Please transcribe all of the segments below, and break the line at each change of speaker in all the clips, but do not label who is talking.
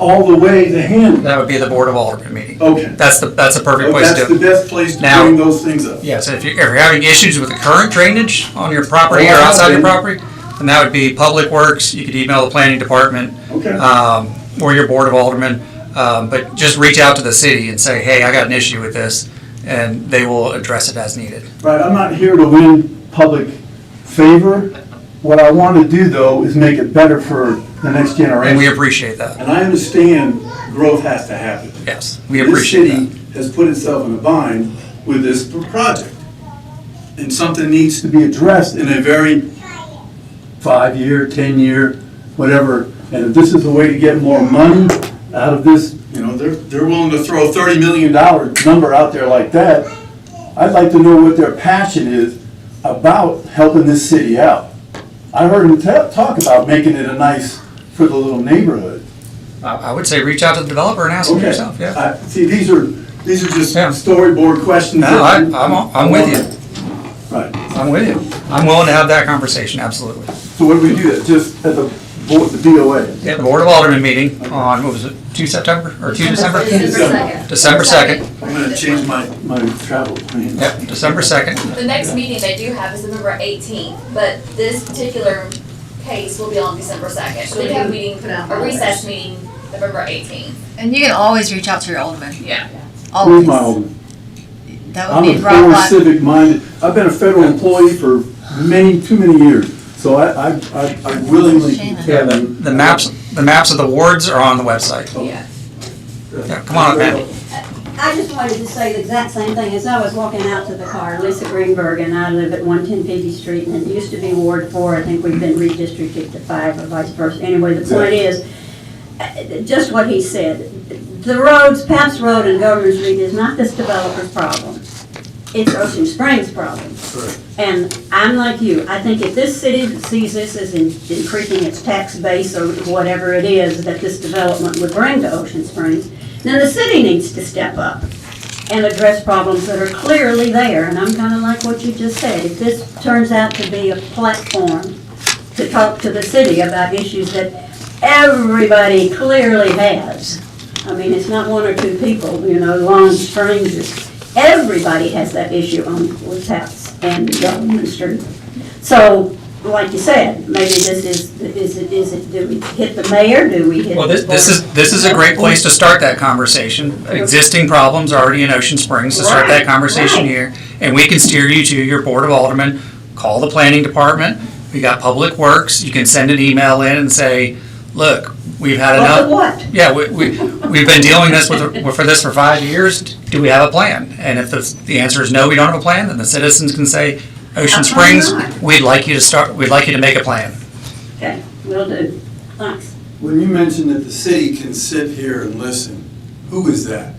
all the way to Hanley.
That would be the Board of Alderman meeting.
Okay.
That's the, that's a perfect place
Oh, That's the
to.
best place to
Now-
bring those things up.
Yes, if you're, if you're having issues with the current drainage on your property or
Oh,
outside your property, then that would be Public Works. You could email the planning department.
Okay.
um, or your board of aldermen, um, but just reach out to the city and say, hey, I got an issue with this, and they will address it as needed.
Right, I'm not here to win public favor. What I want to do, though, is make it better for the next
And we
generation.
appreciate that.
And I understand growth has to happen.
Yes, we appreciate
This
that.
city has put itself in a bind with this project. And something needs to be addressed in a very five-year, 10-year, whatever. And if this is a way to get more money out of this, you know, they're, they're willing to throw $30 million number out there like that. I'd like to know what their passion is about helping this city out. I heard them ta- talk about making it a nice for the little neighborhood.
I, I would say reach out to the developer and ask them
Okay.
yourself, yeah.
I- See, these are, these are just
Yeah.
storyboard questions.
No,
that
I,
you-
I'm, I'm with you,
Right,
I'm with you. I'm willing to have that conversation, absolutely.
so what do we do, that just at the, board, the BOA?
Yeah, the board of aldermen meeting on, what was it, two September, or two December?
December.
December second,
I'm gonna change my, my travel plans.
yep, December second.
The next meeting they do have is November eighteenth, but this particular case will be on December second. So they have a meeting,
Put out
a recess meeting November eighteenth.
And you can always reach out to your alderman.
Yeah.
Where's my
Always.
own?
That would
I'm
be
a
Rob
former
Black.
civic minded, I've been a federal employee for many, too many years, so I, I, I I willingly.
Shannon.
Yeah, the, the maps, the maps of the wards are on the website.
Yeah.
Yeah, come on up, Matt.
I just wanted to say the exact same thing. As I was walking out to the car, Lisa Greenberg and I live at 110 Fifty Street, and it used to be Ward 4. I think we've been redistricted to 5 or vice versa. Anyway, the point is, uh, just what he said, the roads, Paps Road and Governor's Reed is not this developer's problem. It's Ocean Springs' problem. And I'm like you, I think if this city sees this as in- increasing its tax base or whatever it is that this development would bring to Ocean Springs, then the city needs to step up and address problems that are clearly there. And I'm kinda like what you just said, if this turns out to be a platform to talk to the city about issues that everybody clearly has. I mean, it's not one or two people, you know, long strangers. Everybody has that issue on Woods House and Government Street. So, like you said, maybe this is, is it, is it, do we hit the mayor, do we hit?
Well, this, this is, this is a great place to start that conversation. Existing problems are already in Ocean Springs, to start that
Right,
conversation
right.
here. And we can steer you to your Board of Aldermen, call the planning department, we got Public Works, you can send an email in and say, look, we've had
Well,
enough.
but what?
Yeah, we, we, we've been dealing this with, for this for five years, do we have a plan? And if the, the answer is no, we don't have a plan, then the citizens can say, Ocean
How come
Springs,
not?
we'd like you to start, we'd like you to make a plan.
Okay, will do. Thanks.
When you mentioned that the city can sit here and listen, who is that?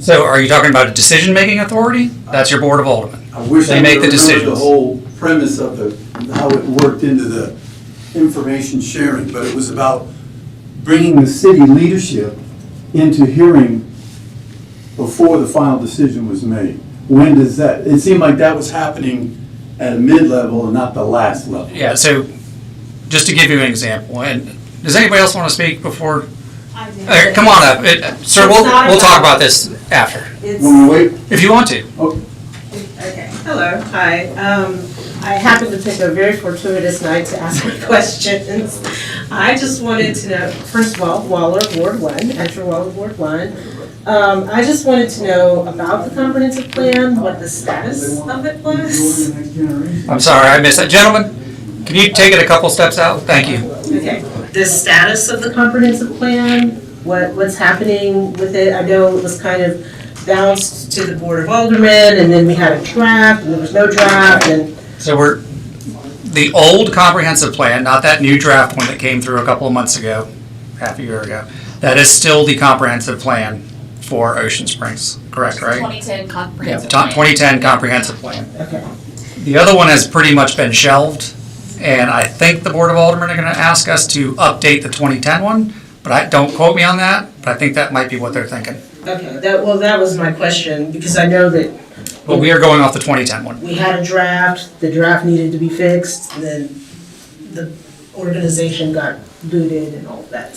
So are you talking about a decision-making authority? That's your Board of Aldermen.
I wish
They
I could
make
remember
the
the
decisions.
whole premise of the, how it worked into the information sharing, but it was about bringing the city leadership into hearing before the final decision was made. When does that, it seemed like that was happening at a mid-level and not the last level.
Yeah, so just to give you an example, and does anybody else want to speak before? Uh, Come on up, It- sir, we'll, we'll talk about this after,
When we wait,
if you want to.
Okay, hello, hi. Um, I happened to pick a very fortuitous night to ask my questions. I just wanted to know, first of all, Waller Ward One, enter Waller Ward One. Um, I just wanted to know about the comprehensive plan, what the status of it was.
I'm sorry, I missed that. Gentlemen, can you take it a couple steps out? Thank you.
Okay, the status of the comprehensive plan, what, what's happening with it? I know it was kind of bounced to the Board of Aldermen, and then we had a draft, and there was no draft, and
So we're, the old comprehensive plan, not that new draft one that came through a couple of months ago, half a year ago, that is still the comprehensive plan for Ocean Springs, correct, right?
Twenty-ten
Yeah,
comprehensive
top
plan.
2010 comprehensive plan.
Okay.
The other one has pretty much been shelved, and I think the Board of Aldermen are gonna ask us to update the 2010 one, but I, don't quote me on that, but I think that might be what they're thinking.
Okay, that, well, that was my question, because I know that
But we are going off the 2010 one.
we had a draft, the draft needed to be fixed, and then the organization got booted and all that